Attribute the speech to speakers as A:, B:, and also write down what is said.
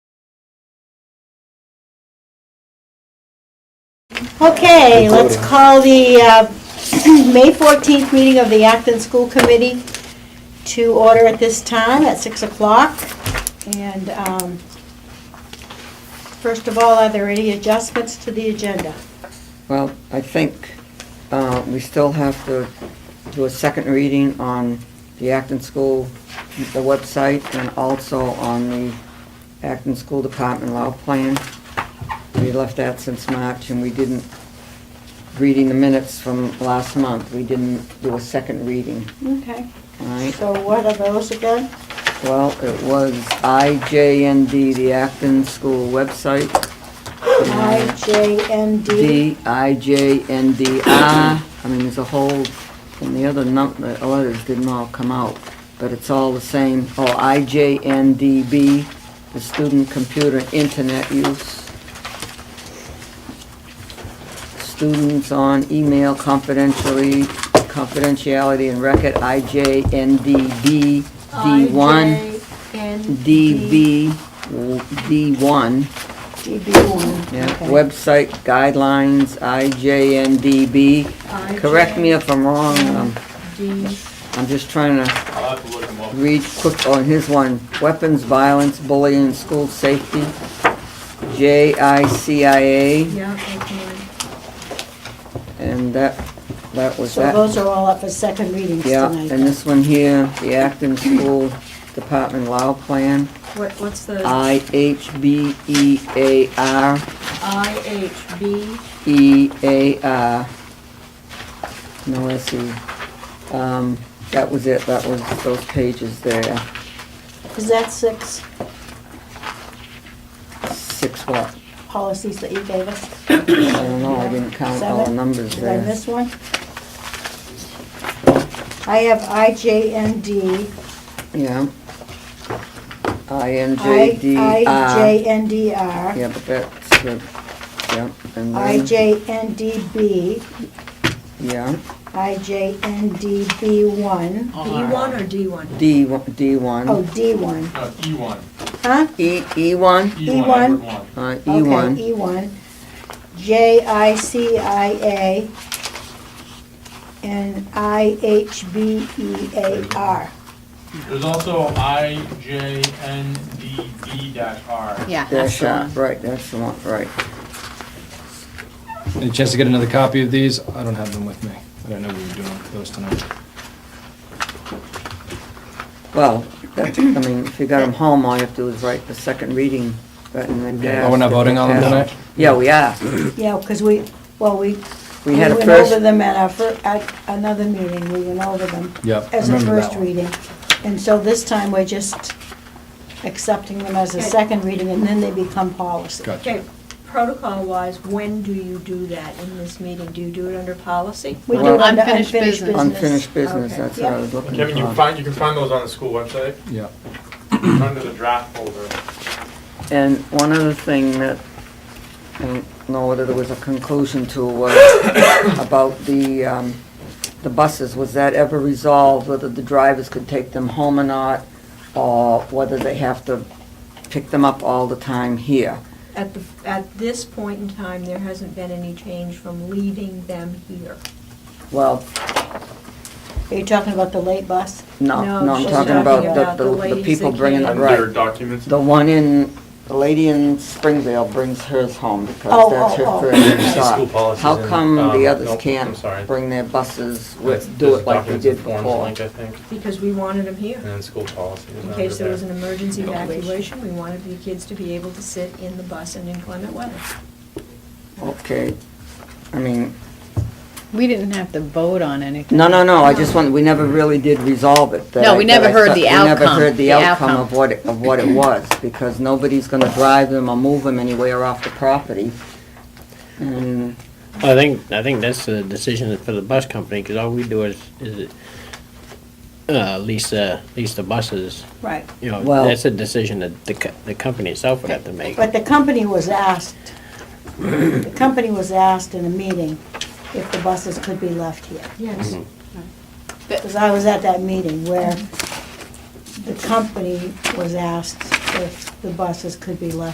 A: Okay, let's call the uh, May 14th meeting of the Acton School Committee to order at this time at 6 o'clock. And um, first of all, are there any adjustments to the agenda?
B: Well, I think uh, we still have to do a second reading on the Acton School, the website, and also on the Acton School Department law plan. We left that since March, and we didn't, reading the minutes from last month, we didn't do a second reading,
A: Okay,
B: all right?
A: so what are those again?
B: Well, it was IJND, the Acton School website. and
A: IJND.
B: D, I, J, and D, I. I mean, there's a whole, and the other num, the letters didn't all come out, but it's all the same. Oh, I, J, N, D, B, the student computer internet use. Students on email confidentially, confidentiality and record, I, J, N, D, B, D one, D, B, w- D one.
A: DB1.
B: Yeah,
A: okay.
B: website guidelines, IJNDB. Correct me if I'm wrong, I'm,
A: IJND.
B: I'm just trying to
C: I'll have to look them up.
B: read quick on his one. Weapons, violence, bullying, and school safety, JICIA,
A: Yeah, okay.
B: and that, that was
A: So
B: that.
A: those are all up for second readings
B: Yeah,
A: tonight.
B: and this one here, the Acton School Department Law Plan,
D: What, what's the
B: E IHBEAR.
D: IHB?
B: E A R. No S E. Um, that was it, that was those pages there.
A: Is that six
B: Six what?
A: policies that you gave us?
B: I don't know, I didn't count all the
A: Seven?
B: numbers
A: Did I
B: there.
A: miss one? I have IJND,
B: Yeah. I N J D
A: I-
B: R.
A: IJNDR,
B: Yeah, but that's good. Yeah, and then,
A: IJNDB,
B: yeah,
A: IJNDB1,
D: B1 or D1?
B: D, one- D
A: oh,
B: one,
A: D1,
C: No, E one,
A: huh?
B: E, E one,
C: E
A: E1.
C: one, Edward one.
B: uh, E
A: Okay,
B: one,
A: E1, JICIA, and E IHBEAR.
C: There's also I, J, N, D, B dash R.
E: Yeah, that's
B: dash
E: the
B: R,
E: one.
B: right, that's the one, right.
F: Any chance to get another copy of these? I don't have them with me. I don't know what we were doing with those tonight.
B: Well, that, I mean, if you got them home, all you have to do is write the second reading, but in the
F: Oh, we're not voting on them tonight?
B: Yeah, we are.
A: Yeah, because we, well, we
B: We had a
A: went over
B: first,
A: them at our, fir- at another meeting, we went over them
F: Yep, I
A: as a
F: remember that
A: first
F: one.
A: reading. And so this time, we're just accepting them as a
D: Okay.
A: second reading, and then they become policy.
D: Okay,
F: Gotcha.
D: protocol-wise, when do you do that in this meeting? Do you do it under policy?
A: We do
B: Well-
A: under unfinished
E: Unfinished business.
A: business.
B: unfinished business,
D: Okay.
B: that's what I was looking for.
C: Kevin, you find, you can find those on the school website,
F: Yeah.
C: under the draft folder.
B: And one other thing that, I don't know whether there was a conclusion to, was about the, um, the buses, was that ever resolved, whether the drivers could take them home or not, or whether they have to pick them up all the time here?
D: At the, at this point in time, there hasn't been any change from leaving them here.
B: Well,
A: Are you talking about the late bus?
B: no,
D: No,
B: no, I'm
D: she's
B: talking about the-
D: the
B: the, the
D: ladies
B: people
D: that
B: bringing the
D: came.
B: right.
C: Under documents.
B: The one in, the lady in Springvale brings hers home
A: Oh,
B: because that's
A: oh, oh.
B: her first
C: School
B: stop.
C: policies
B: How
C: and,
B: come
C: um,
B: the others
C: nope, I'm
B: can't
C: sorry.
B: bring their buses,
C: That's-
B: with- do
C: there's
B: it like we
C: documents and
B: did
C: forms
B: before?
C: link, I think,
D: Because we wanted them here.
C: and then school policy is
D: In
C: under
D: case there
C: there.
D: was an emergency evacuation, we wanted the kids to be able to sit in the bus in inclement weather.
B: Okay, I mean,
E: We didn't have to vote on anything.
B: no, no, no, I just want, we never really did resolve it. that
E: No,
B: I-
E: we
B: that
E: never
B: I
E: heard
B: thought-
E: the
B: We never
E: outcome,
B: heard the
E: the
B: outcome
E: outcome.
B: of what, it- of what it was, because nobody's gonna drive them or move them anywhere off the property. And
G: I think, I think that's the decision for the bus company, because all we do is, is uh, lease, uh, lease the buses,
A: Right.
G: you know,
B: Well-
G: that's a decision that the, co- the company itself would have to make.
A: But the company was asked, the company was asked in a meeting if the buses could be left here.
D: Yes.
A: Because I was at that meeting where the company was asked if the buses could be left